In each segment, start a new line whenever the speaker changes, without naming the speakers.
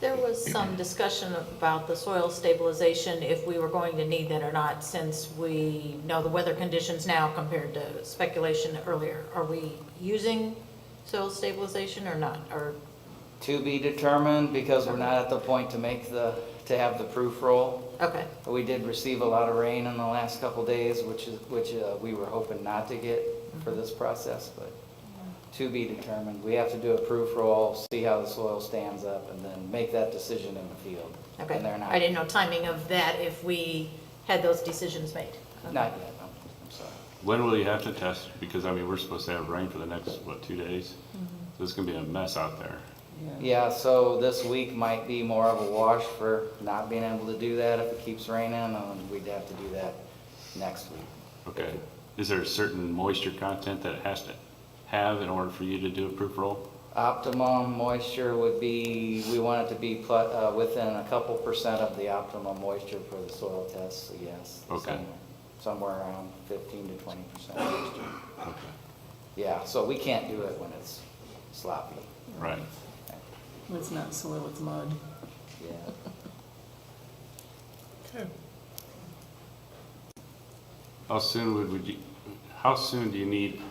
There was some discussion about the soil stabilization, if we were going to need that or not, since we know the weather conditions now compared to speculation earlier. Are we using soil stabilization or not, or,
To be determined, because we're not at the point to make the, to have the proof roll.
okay,
We did receive a lot of rain in the last couple days, which is, which uh, we were hoping not to get for this process, but to be determined. We have to do a proof roll, see how the soil stands up, and then make that decision in the field.
okay.
And they're not,
I didn't know timing of that, if we had those decisions made. Okay.
not yet, no, I'm sorry.
When will you have to test? Because I mean, we're supposed to have rain for the next, what, two days?
Mm-hmm.
So it's gonna be a mess out there.
Yeah, so this week might be more of a wash for not being able to do that if it keeps raining, and we'd have to do that next week.
Okay. Is there a certain moisture content that it has to have in order for you to do a proof roll?
Optimum moisture would be, we want it to be plu- uh, within a couple percent of the optimum moisture for the soil test, so yes.
Okay.
somewhere- Somewhere around fifteen to twenty percent moisture.
Okay.
Yeah, so we can't do it when it's sloppy.
Right.
It's not soil, it's mud.
Yeah.
How soon would, would you, how soon do you need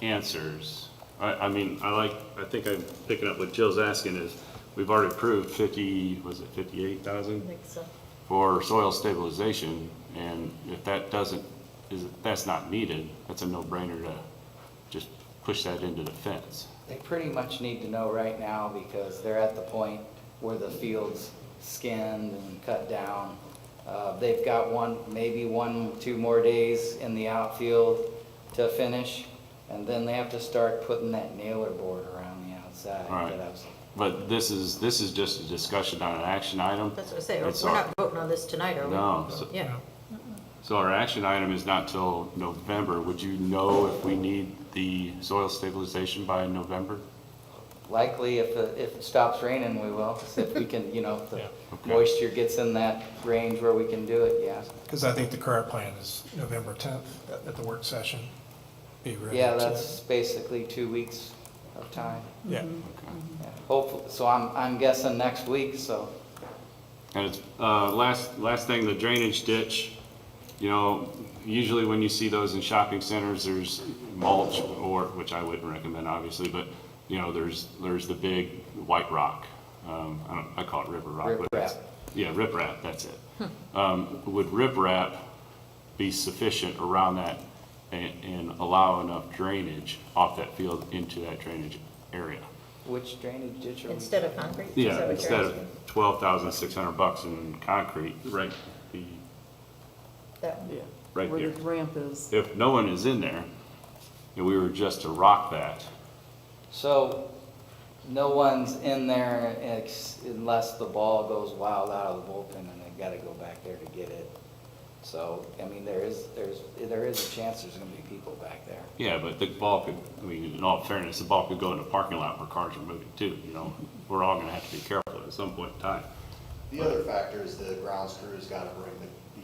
answers? I, I mean, I like, I think I'm picking up what Jill's asking is, we've already approved fifty, was it fifty-eight
I
thousand?
think so.
for soil stabilization, and if that doesn't, is, that's not needed, that's a no-brainer to just push that into the fence.
They pretty much need to know right now because they're at the point where the field's skinned and cut down. Uh, They've got one, maybe one, two more days in the outfield to finish, and then they have to start putting that nailer board around the outside.
All right.
that I was-
But this is, this is just a discussion on an action item.
That's what I say, we're
It's our-
not voting on this tonight, are we?
No, so,
Yeah,
so our action item is not till November, would you know if we need the soil stabilization by November?
Likely, if, it- if it stops raining, we will. If we can, you know, if the
Okay.
moisture gets in that range where we can do it, yeah.
Because I think the current plan is November 10th at- at the work session. Be ready
Yeah,
to-
that's Mm-hmm. basically two weeks of time.
Yeah,
Okay.
Yeah, Hopefully, so I'm, I'm guessing next week, so,
And it's, uh, last, last thing, the drainage ditch, you know, usually when you see those in shopping centers, there's mulch or, which I wouldn't recommend obviously, but, you know, there's, there's the big white rock. Um, I don't, I call it river rock. but it's-
Riprap.
Yeah, riprap, that's it. Um, would riprap be sufficient around that and, and allow enough drainage off that field into that drainage area?
which drainage ditch are we?
instead of concrete? is that what
Yeah,
you're
instead of
asking?
twelve thousand six hundred bucks in concrete, right, the,
That one.
Yeah.
Right
Where
there.
the ramp is.
if no one is in there, and we were just to rock that,
So, no one's in there ex- unless the ball goes wild out of the bullpen and they gotta go back there to get it. So, I mean, there is, there's, there is a chance there's gonna be people back there.
yeah, but the ball could, I mean, in all fairness, the ball could go in the parking lot where cars are moving too, you know? We're all gonna have to be careful at some point in time.
The other factor is the grounds crew's got to bring the,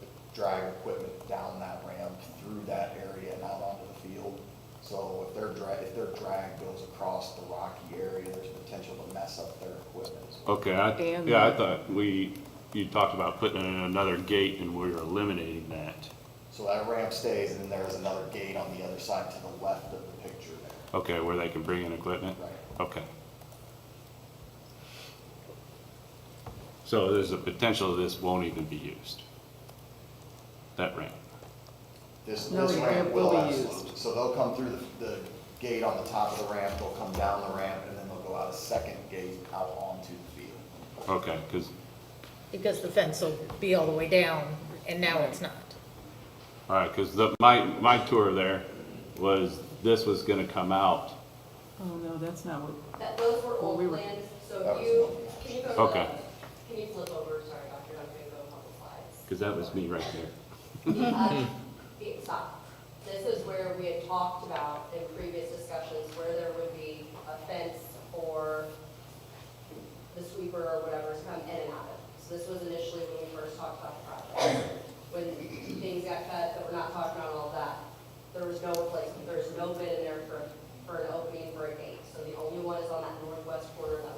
the drag equipment down that ramp through that area and out onto the field. So if their drag, if their drag goes across the rocky area, there's potential to mess up their equipment.
Okay, I,
And-
yeah, I thought we, you talked about putting in another gate and we we're eliminating that.
So that ramp stays and then there is another gate on the other side to the left of the picture there.
Okay, where they can bring in equipment?
Right.
Okay. So there's a potential this won't even be used? That ramp?
This,
No,
this
the
ramp
ramp
will
will be
absolutely, so they'll come through the, the gate on the top of the ramp, they'll come down the ramp and then they'll go out a second gate out onto the field.
Okay, because,
Because the fence will be all the way down, and now it's not.
all right, because the, my, my tour there was, this was gonna come out.
Oh, no, that's not what,
That, those were
we
old
were-
plans, so
That
if
was
you,
one.
can you go to the?
Okay.
Can you flip over, sorry, Dr., I'm gonna go a couple slides.
Because that was me right there.
Uh, the- Stop. This is where we had talked about in previous discussions where there would be a fence or the sweeper or whatever's come in and out of. So this was initially when we first talked about the project. When things got cut, that we're not talking about all that, there was no replacement, there's no bid in there for, for an opening for a gate. So the only one is on that northwest corner of the